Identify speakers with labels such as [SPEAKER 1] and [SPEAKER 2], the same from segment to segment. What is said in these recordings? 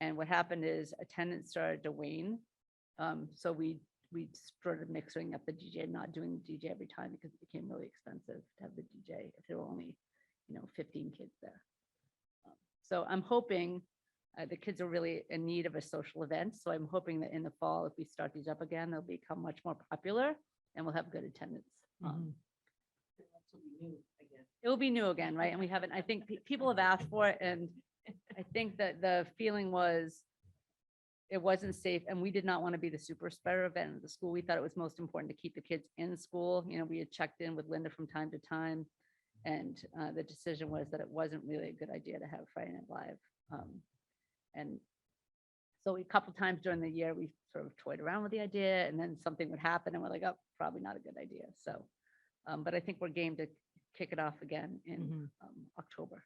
[SPEAKER 1] And what happened is attendance started to wane. Um, so we, we started mixing up the DJ, not doing the DJ every time because it became really expensive to have the DJ if there were only, you know, fifteen kids there. Um, So I'm hoping, uh, the kids are really in need of a social event. So I'm hoping that in the fall, if we start these up again, they'll become much more popular and we'll have good attendance. Um,
[SPEAKER 2] Mm-hmm.
[SPEAKER 1] it will be new again, right? And we haven't, I think pe- people have asked for it and I think that the feeling was it wasn't safe and we did not want to be the super spreader event at the school. We thought it was most important to keep the kids in school. You know, we had checked in with Linda from time to time. And uh, the decision was that it wasn't really a good idea to have Friday Night Live. um, And so a couple times during the year, we sort of toyed around with the idea and then something would happen and we're like, oh, probably not a good idea. So, um, but I think we're game to kick it off again in
[SPEAKER 2] Mhm.
[SPEAKER 1] um, October.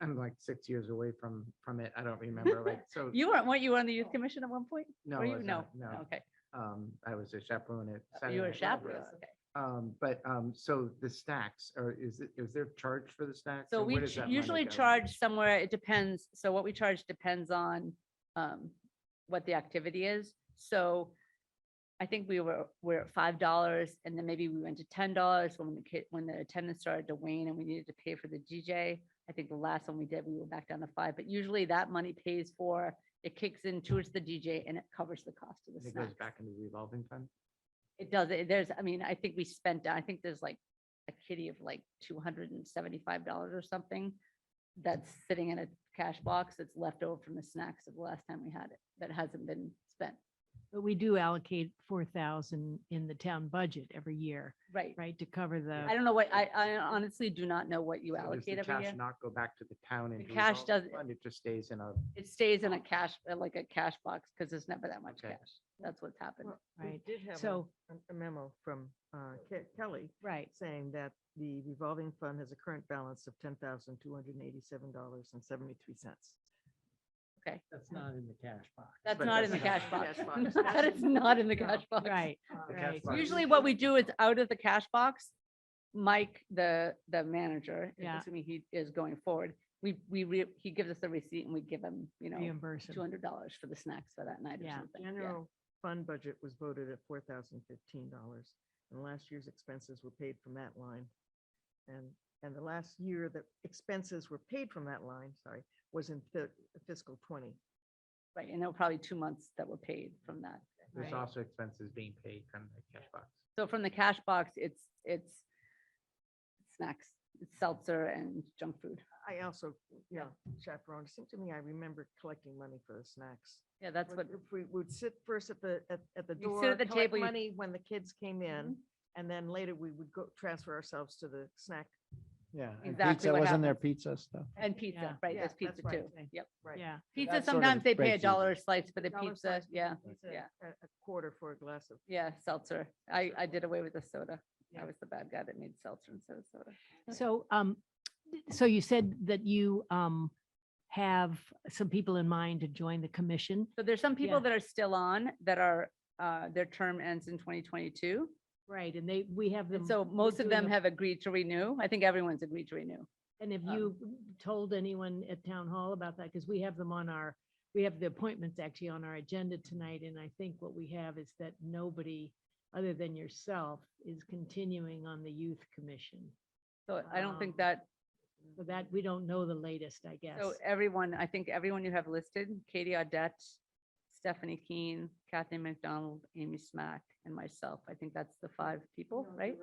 [SPEAKER 3] I'm like six years away from, from it. I don't remember like, so.
[SPEAKER 1] You weren't, weren't you on the youth commission at one point?
[SPEAKER 3] No,
[SPEAKER 1] Were
[SPEAKER 3] I
[SPEAKER 1] you?
[SPEAKER 3] was
[SPEAKER 1] No,
[SPEAKER 3] not, no.
[SPEAKER 1] okay. Uh,
[SPEAKER 3] Um, I was a chaperone at. Saturday
[SPEAKER 1] You were a
[SPEAKER 3] Night Live.
[SPEAKER 1] chaperone, okay.
[SPEAKER 3] Um, but, um, so the stacks, or is it, is there a charge for the stacks?
[SPEAKER 1] So
[SPEAKER 3] and
[SPEAKER 1] we
[SPEAKER 3] where does
[SPEAKER 1] ch-
[SPEAKER 3] that money
[SPEAKER 1] usually
[SPEAKER 3] go?
[SPEAKER 1] charge somewhere, it depends, so what we charge depends on um, what the activity is. So I think we were, we're at five dollars and then maybe we went to ten dollars when the kid, when the attendance started to wane and we needed to pay for the DJ. I think the last one we did, we were back down to five, but usually that money pays for, it kicks in towards the DJ and it covers the cost of
[SPEAKER 3] And
[SPEAKER 1] the
[SPEAKER 3] It goes
[SPEAKER 1] snacks.
[SPEAKER 3] back into revolving fund?
[SPEAKER 1] It does, it- there's, I mean, I think we spent, I think there's like a kitty of like two hundred and seventy-five dollars or something that's sitting in a cash box that's left over from the snacks of the last time we had it, that hasn't been spent.
[SPEAKER 2] But we do allocate four thousand in the town budget every year,
[SPEAKER 1] Right.
[SPEAKER 2] right, to cover the.
[SPEAKER 1] I don't know what, I, I honestly do not know what you
[SPEAKER 3] So does the
[SPEAKER 1] allocate every
[SPEAKER 3] cash
[SPEAKER 1] year.
[SPEAKER 3] Not go back to the town and.
[SPEAKER 1] cash doesn't-
[SPEAKER 3] Fund, it just stays in a.
[SPEAKER 1] It stays in a cash, uh, like a cash box, because there's never that much
[SPEAKER 3] Okay.
[SPEAKER 1] cash. That's what's happened.
[SPEAKER 4] Well, we
[SPEAKER 2] Right.
[SPEAKER 4] Did have a-
[SPEAKER 2] So,
[SPEAKER 4] a memo from uh, Ke- Kelly
[SPEAKER 2] right,
[SPEAKER 4] saying that the revolving fund has a current balance of ten thousand two hundred and eighty-seven dollars and seventy-three cents.
[SPEAKER 1] Okay,
[SPEAKER 3] That's not in the cash box.
[SPEAKER 1] that's
[SPEAKER 3] But
[SPEAKER 1] not in the cash
[SPEAKER 3] that's
[SPEAKER 4] not
[SPEAKER 1] box.
[SPEAKER 4] in the cash box.
[SPEAKER 1] That is not in the cash box.
[SPEAKER 2] right,
[SPEAKER 3] The cash
[SPEAKER 2] right.
[SPEAKER 3] box is-
[SPEAKER 1] Usually what we do is out of the cash box, Mike, the, the manager,
[SPEAKER 2] Yeah.
[SPEAKER 1] assuming he is going forward, we, we, re- he gives us the receipt and we give him, you know,
[SPEAKER 2] Reimburse
[SPEAKER 1] two
[SPEAKER 2] 'em.
[SPEAKER 1] hundred dollars for the snacks for that night or
[SPEAKER 2] Yeah.
[SPEAKER 1] something. yeah.
[SPEAKER 4] General fund budget was voted at four thousand fifteen dollars, and last year's expenses were paid from that line. And, and the last year that expenses were paid from that line, sorry, was in fi- fiscal twenty.
[SPEAKER 1] Right, and there were probably two months that were paid from that.
[SPEAKER 3] There's
[SPEAKER 2] Right.
[SPEAKER 3] also expenses being paid from the cash box.
[SPEAKER 1] So from the cash box, it's, it's snacks, it's seltzer and junk food.
[SPEAKER 4] I also, yeah, chaperone, it seemed to me I remember collecting money for the snacks.
[SPEAKER 1] Yeah, that's what,
[SPEAKER 4] Would- If we would sit first at the, at, at the
[SPEAKER 1] You sit
[SPEAKER 4] door.
[SPEAKER 1] at the
[SPEAKER 4] collect
[SPEAKER 1] table, you-
[SPEAKER 4] Money when the kids came in,
[SPEAKER 1] Mhm.
[SPEAKER 4] and then later we would go transfer ourselves to the snack.
[SPEAKER 5] Yeah. and
[SPEAKER 1] Exactly
[SPEAKER 5] pizza,
[SPEAKER 1] what
[SPEAKER 5] Wasn't there pizza stuff?
[SPEAKER 1] and
[SPEAKER 2] Yeah.
[SPEAKER 1] pizza, right,
[SPEAKER 4] Yeah,
[SPEAKER 1] there's
[SPEAKER 4] that's
[SPEAKER 1] pizza
[SPEAKER 4] right.
[SPEAKER 1] too.
[SPEAKER 4] Okay.
[SPEAKER 1] Yep.
[SPEAKER 4] Right.
[SPEAKER 2] Yeah,
[SPEAKER 1] Pizza,
[SPEAKER 5] that sort of
[SPEAKER 1] sometimes they pay a
[SPEAKER 5] breaks even.
[SPEAKER 1] dollar a slice for the
[SPEAKER 4] Dollar
[SPEAKER 1] pizza,
[SPEAKER 4] slice for
[SPEAKER 1] yeah,
[SPEAKER 4] pizza,
[SPEAKER 1] yeah.
[SPEAKER 4] A, a quarter for a glass of.
[SPEAKER 1] yeah, seltzer. I, I did away with the soda. I
[SPEAKER 4] Yeah.
[SPEAKER 1] was the bad guy that made seltzer instead of soda.
[SPEAKER 2] so, um, so you said that you, um, have some people in mind to join the commission.
[SPEAKER 1] So there's some people
[SPEAKER 2] Yeah.
[SPEAKER 1] that are still on that are, uh, their term ends in 2022.
[SPEAKER 2] Right, and they, we have them.
[SPEAKER 1] And so
[SPEAKER 2] we're
[SPEAKER 1] most of
[SPEAKER 2] doing
[SPEAKER 1] them
[SPEAKER 2] a-
[SPEAKER 1] have agreed to renew. I think everyone's agreed to renew.
[SPEAKER 2] And have
[SPEAKER 1] um,
[SPEAKER 2] you told anyone at town hall about that? Because we have them on our, we have the appointments actually on our agenda tonight. And I think what we have is that nobody other than yourself is continuing on the youth commission.
[SPEAKER 1] So I don't think
[SPEAKER 2] Um,
[SPEAKER 1] that,
[SPEAKER 2] So that, we don't know the latest, I guess.
[SPEAKER 1] Mm-hmm. so everyone, I think everyone you have listed, Katie Audette, Stephanie Keen, Kathy McDonald, Amy Smack, and myself. I think that's the five people, right?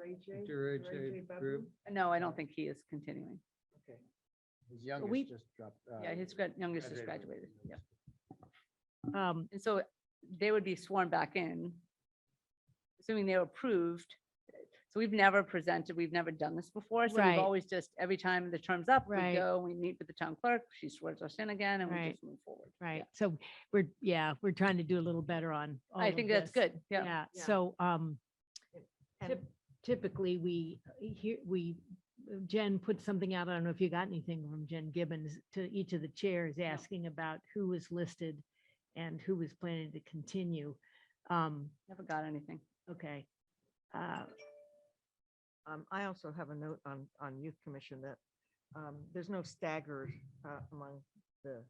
[SPEAKER 1] No, I don't think he is continuing.
[SPEAKER 5] His
[SPEAKER 2] we-
[SPEAKER 5] youngest just dropped. uh,
[SPEAKER 1] Yeah, his gran- youngest just
[SPEAKER 5] graduated.
[SPEAKER 1] graduated. Yeah.
[SPEAKER 2] Um,
[SPEAKER 1] And so they would be sworn back in, assuming they were approved. So we've never presented, we've never done this before. So we've
[SPEAKER 2] Right.
[SPEAKER 1] always just, every time the term's up, we
[SPEAKER 2] Right.
[SPEAKER 1] go, we meet with the town clerk, she swears us in again and we
[SPEAKER 2] Right.
[SPEAKER 1] just move forward. Yeah.
[SPEAKER 2] right. So we're, yeah, we're trying to do a little better on. all
[SPEAKER 1] I
[SPEAKER 2] of
[SPEAKER 1] think that's
[SPEAKER 2] this.
[SPEAKER 1] good. Yeah.
[SPEAKER 2] Yeah,
[SPEAKER 4] Yeah.
[SPEAKER 2] so, um,
[SPEAKER 4] And
[SPEAKER 2] Tip- typically we here, we, uh, Jen put something out. I don't know if you got anything from Jen Gibbons to each of the chairs asking about who was listed and who was planning to continue. Um,
[SPEAKER 1] Never got anything.
[SPEAKER 2] okay. Uh,
[SPEAKER 4] Um, I also have a note on, on youth commission that, um, there's no stagger, uh, among the